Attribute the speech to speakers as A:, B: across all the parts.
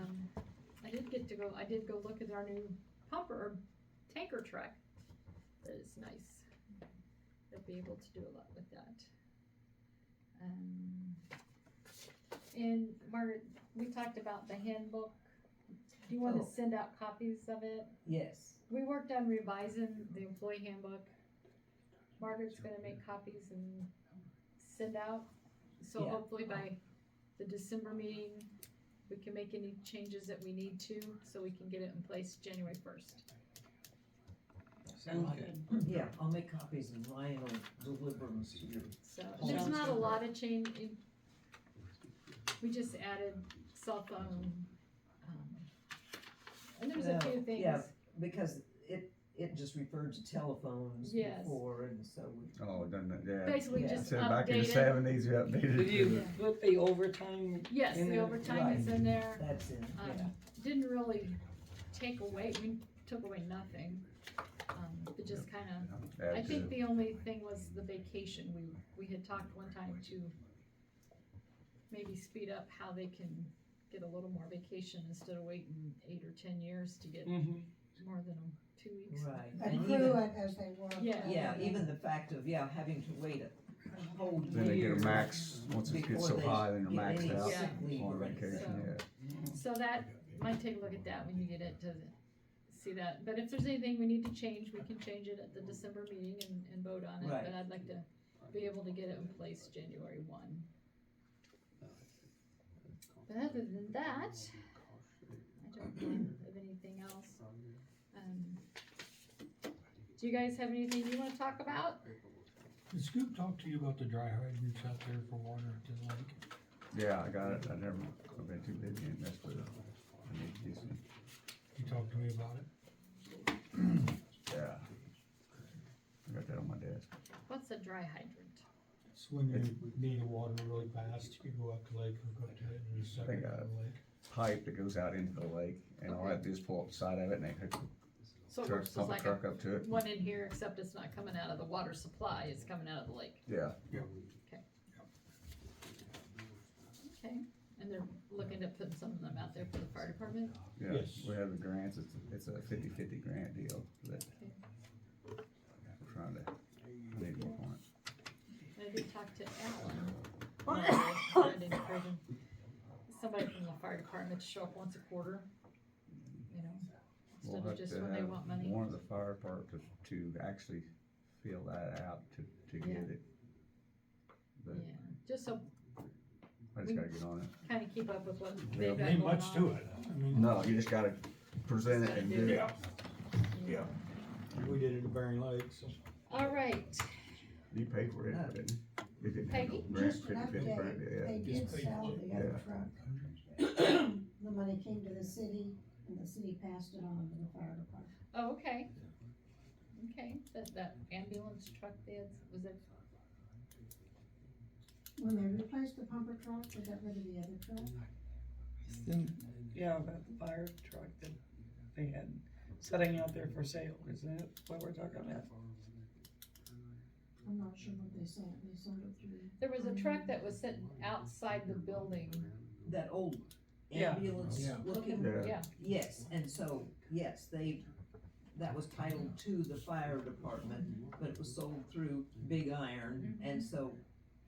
A: go, Um, I did go look at our new pumper, or tanker truck. That is nice. They'll be able to do a lot with that. Um, and Margaret, we talked about the handbook. Do you wanna
B: Oh.
A: send out copies of it?
B: Yes.
A: We worked on revising the employee handbook. Margaret's gonna make copies and send out, so
B: Yeah.
A: hopefully by the December meeting, we can make any changes that we need to, so we can get it in place January first.
B: Sounds good. Yeah, I'll make copies and Ryan will deliver them to you.
A: So,
B: Oh,
A: there's
B: that's
A: not a
B: good.
A: lot of change in, we just added cell phone, um, and there's a
B: No,
A: few
B: yeah.
A: things,
B: Because it, it just referred to telephones
A: Yes.
B: before and so we.
C: Oh, doesn't it? Yeah.
A: basically
B: Yeah.
A: just
C: So back in the
A: updated.
C: seventies, we
D: Did
C: updated.
D: you
A: Yeah.
D: put the overtime?
A: Yes,
D: in
A: the
D: there?
A: overtime is in there.
B: That's in,
A: um,
B: yeah.
A: didn't really take away, we took away nothing. Um, it just kinda,
C: Yeah,
A: I think
C: good.
A: the only thing was the vacation, we, we had talked one time to maybe speed up how they can get a little more vacation instead of waiting eight or ten years to get
D: Mhm.
A: more than a- two weeks.
B: Right. And
E: accrue
B: even-
E: it as they work.
A: Yeah.
B: Yeah, even the fact of, yeah, having to wait a whole year.
C: Then they get a max, once it gets
B: before
C: so
B: they
C: high, then they're
B: get any
C: maxed out
B: sick leave
C: on
B: or
C: vacation,
B: anything.
C: yeah.
A: So that, might take a look at that when you get it to see that, but if there's anything we need to change, we can change it at the December meeting and, and vote on it,
B: Right.
A: but I'd like to be able to get it in place January one. But other than that, I don't know of anything else. Um, Do you guys have anything you wanna talk about?
F: Did Scoop talk to you about the dry hydrants out there for water at the lake?
C: Yeah, I got it. I never, I've been too busy and messed with it. I need to get some,
F: He talked to me about it.
C: yeah. I got that on my desk.
A: What's a dry hydrant?
F: It's when you need the water really fast, you go out to the lake, hook up to it, and just suck
C: They
F: it
C: got
F: out of the lake.
C: Pipe that goes out into the lake and all I have to do is pull up the side of it and they hook,
A: So it
C: truck,
A: works as
C: pump a
A: like a
C: truck up to it.
A: one in here, except it's not coming out of the water supply, it's coming out of the lake.
C: Yeah.
A: Okay, and they're looking to put some of them out there for the fire department?
C: Yeah,
F: Yes.
C: we have the grants, it's, it's a fifty-fifty grant deal that we're trying to, I need more on it.
A: I did talk to Alan. I did encourage him- Somebody from the fire department to show up once a quarter, you know,
C: We'll
A: instead of
C: have
A: just
C: to
A: when they
C: have
A: want money.
C: One of the fire department to, to actually fill that out to, to
A: Yeah.
C: get it. But
A: Yeah, just so,
C: I
A: we-
C: just gotta get on it.
A: kinda keep up with what
C: Yeah,
A: they've got
F: Ain't
A: going
F: much
A: on.
F: to it. I mean,
C: No, you just gotta present it
A: Just
C: and
A: gotta
C: do
A: do
C: it.
A: it.
C: Yeah.
F: we did it at Bering Lake, so.
A: All right,
C: You paid for it, but it it didn't have no
A: Peggy?
C: grant,
E: Just an
C: 50/50 grant,
E: update,
C: yeah.
E: they did sell the other truck. The money came to the city and the city passed it on to the fire department.
A: oh, okay. Okay, that, that ambulance truck there, was it,
E: When they replaced the pumper truck, they got rid of the other truck.
D: Yeah, that fire truck that they had setting out there for sale, is that what we're talking about?
E: I'm not sure what they sold, they sold it through.
A: there was a truck that was sitting outside the building,
B: That old
D: Yeah.
B: ambulance
F: Yeah.
B: looking,
C: Yeah.
A: yeah,
B: yes, and so, yes, they, that was titled to the fire department, but it was sold through Big Iron, and so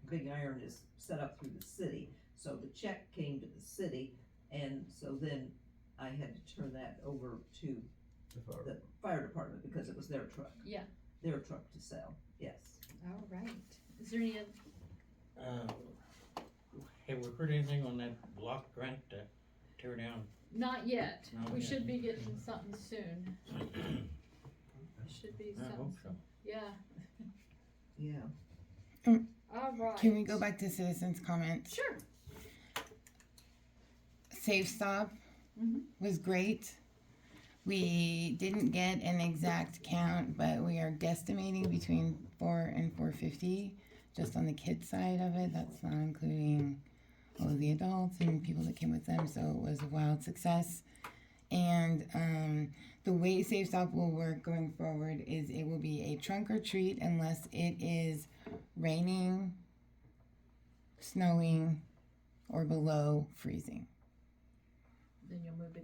B: Big Iron is set up through the city, so the check came to the city, and so then I had to turn that over to
C: If I-
B: the fire department because it was their truck.
A: Yeah.
B: Their truck to sell, yes.
A: all right. Is there any, oth-
G: Uh, Have we heard anything on that block grant to tear down?
A: not yet,
G: Not
A: we
G: yet.
A: should be getting something soon. Should be
G: I hope
A: something,
G: so.
A: yeah,
B: Yeah.
A: all right.
H: Can we go back to citizens' comments?
A: Sure,
H: Safe stop
A: Mhm.
H: was great. We didn't get an exact count, but we are guesstimating between four and four fifty, just on the kids side of it. That's not including all of the adults and people that came with them. So it was a wild success. And um, the way Safe Stop will work going forward is it will be a trunk or treat unless it is raining, snowing, or below freezing.
A: then you'll move it